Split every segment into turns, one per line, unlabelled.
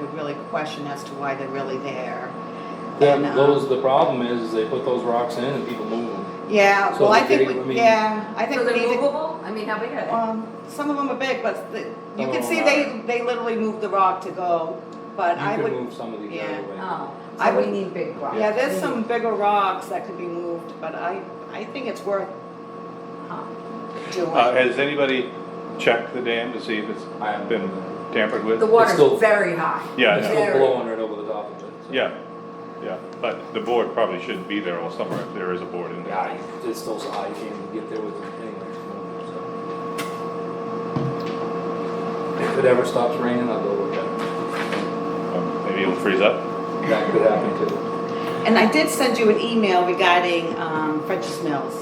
would really question as to why they're really there.
That,
And, um,
those, the problem is, is they put those rocks in and people move them.
Yeah,
So
well, I
they're
think,
getting- I
we-
mean-
yeah, I think
So
we
they're
need to,
movable? I mean, how big are
um, some of them are big, but the- you
Some
can
of
see
them
they, they literally moved the rock to go, but I
Oh, You
would.
could move some of these
yeah. um,
out of the
they?
way.
Oh,
I
so
would-
we need big rocks.
Yeah, there's some bigger rocks that could be moved, but I, I think it's worth
Huh.
doing.
Uh, has anybody checked the dam to see if it's
I haven't
been
been there.
tampered with?
The
still-
water's very high.
Yeah,
It's
yeah.
still
Very.
blowing right over the top of it. so.
Yeah, yeah, but the board probably shouldn't be there all summer if there is a board in there.
Yeah, you- it's still so high, you can't even get there with it anyway. so. If it ever stops raining, I'll go look at it.
Um, Maybe it'll freeze up.
That could happen too.
And I did send you an email regarding, um, French's Mills.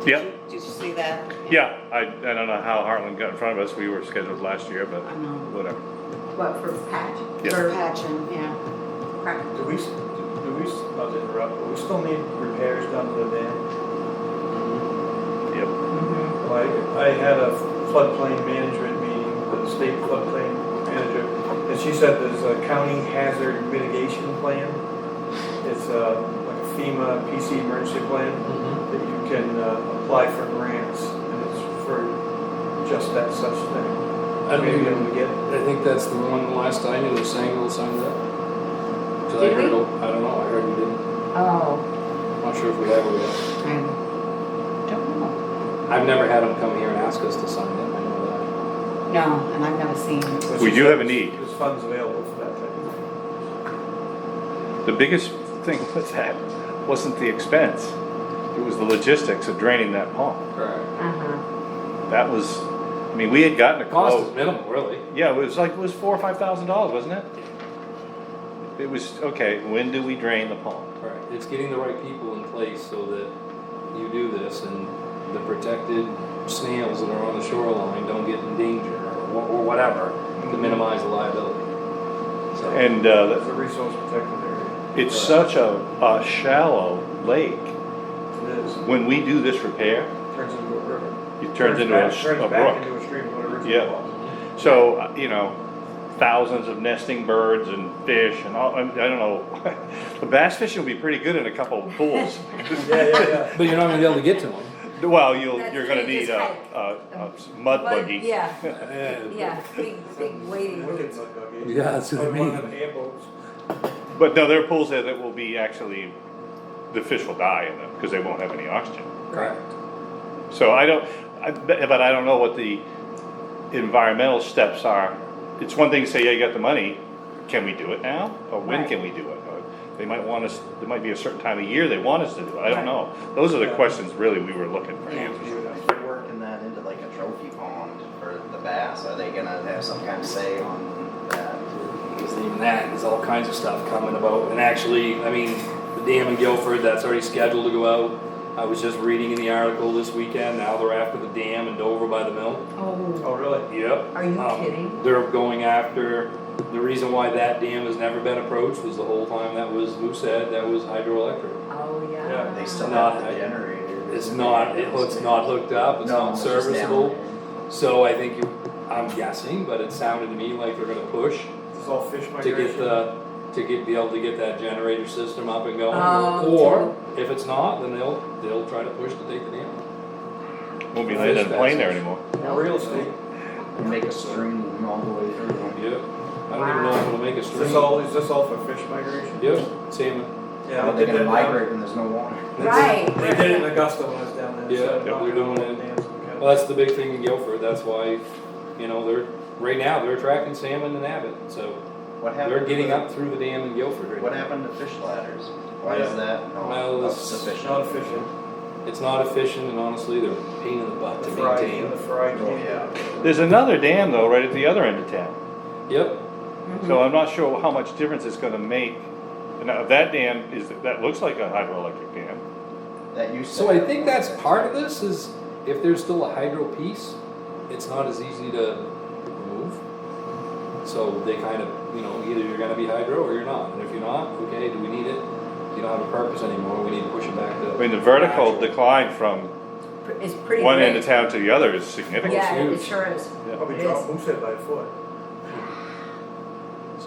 Did
Yeah.
you- Did you see that?
Yeah, I, I don't know how Heartland got in front of us, we were scheduled last year, but
I know,
whatever.
What, for patch?
Yeah.
For patch,
patching, yeah.
correct.
Do we, s- do do we, s- not to interrupt, but we still need repairs done to the dam?
Yep.
Like, I had a floodplain management meeting with the state floodplain manager, and she said there's a county hazard mitigation plan. It's uh, like a FEMA PC emergency plan
Mm-hmm.
that you can uh, apply for grants, and it's for just that such thing.
I don't
Maybe
even,
able to get it.
I think that's the one last I knew, the Sangle signed up. 'Cause I
Did
heard,
we?
a- I don't know, I heard we didn't,
Oh,
I'm not sure if we have or yet.
I don't know.
I've never had them come here and ask us to sign up, I know that.
No, and I've never seen.
But
We
she
do
said
have a need.
There's funds available for that type of thing.
The biggest thing with that wasn't the expense, it was the logistics of draining that pond.
Correct.
uh-huh.
That was, I mean, we had gotten a
The cost is
quote.
minimal, really.
Yeah, it was like, it was four or five thousand dollars, wasn't it? It was, okay, when do we drain the pond?
Right. It's getting the right people in place so that you do this and the protected snails that are on the shoreline don't get in danger or wha- or whatever to minimize the liability. So,
And, uh,
That's a resource protected area.
It's such a, a shallow lake.
It is.
When we do this repair,
Turns into a river.
it turns into a,
back-
s-
turns
a
back
brook.
into a stream, whatever it
Yeah.
was.
So, uh, you know, thousands of nesting birds and fish and all, I I don't know. The bass fishing will be pretty good in a couple of pools.
Yeah, yeah, yeah.
but you're not gonna be able to get to them.
Well, you'll,
That's
you're gonna
pretty
need a, a, a s- mud
But,
buggy.
Yeah, yeah, big, big waiting.
Look
room.
at that dog,
Yeah, that's what I
On one
mean.
of the airboats.
But no, there are pools there that will be actually, the fish will die in them because they won't have any oxygen.
Correct.
So I don't, I, but but I don't know what the environmental steps are. It's one thing to say, yeah, you got the money, can we do it now? Or when
Right.
can we do it? Or They might want us, there might be a certain time of year they want us to do it, I don't
Right.
know. Those are the
Yeah.
questions really we were looking for
Yeah.
answers to.
If you're working that into like a trophy pond for the bass, are they gonna have some kind of say on that?
Because even that, there's all kinds of stuff coming about, and actually, I mean, the dam in Guilford, that's already scheduled to go out. I was just reading in the article this weekend, now they're after the dam in Dover by the mill.
Oh,
Oh, really?
Yep.
Are you
Um,
kidding?
They're going after, the reason why that dam has never been approached was the whole time that was Moosehead, that was hydroelectric.
oh,
Yeah,
yeah.
They still
Not-
have the generator.
It's not, it- it's not hooked up, it's
No,
not
it's just down
serviceable,
there.
so I think you, I'm guessing, but it sounded to me like they're gonna push
It's all
to
fish
get
migration.
the, to get, be able to get that generator system up and going.
Oh,
Or, if it's not, then they'll, they'll try to push to take the dam.
Won't be landing a plane there anymore.
Or Real estate.
Make a stream all the way through.
Yep, I don't even know if it'll make a
Is this
stream.
all, is this all for fish migration?
Yep, salmon,
Yeah,
How are
they
they
did
gonna
that
um,
down.
migrate when there's no water?
Right.
They did it in Augusta when I was down there.
Yeah,
so
yeah, we're doing it.
dams,
well,
okay.
that's the big thing in Guilford, that's why, you know, they're, right now, they're attracting salmon and abbot, so
What happened?
they're getting
to-
up through the dam in Guilford right
What
now.
happened to fish ladders? Why is
Yeah.
that
Well,
not
it's-
sufficient?
Not fishing.
It's not efficient, and honestly, they're a pain in the butt
The
to
fry,
maintain.
the fry.
Oh, yeah.
There's another dam though, right at the other end of town,
Yep,
so I'm not sure how much difference it's gonna make. Now, that dam is, that looks like a hydroelectric dam.
That used to.
So I
happen.
think that's part of this is if there's still a hydro piece, it's not as easy to remove. So they kind of, you know, either you're gonna be hydro or you're not, and if you're not, okay, do we need it? You don't have a purpose anymore, we need to push it back to.
I mean, the vertical
natural.
decline from
It's pretty
one end
great.
of town to the other is significant.
Yeah, it
huge.
sure is.
Probably
It
dropped
is.
Moosehead by a foot.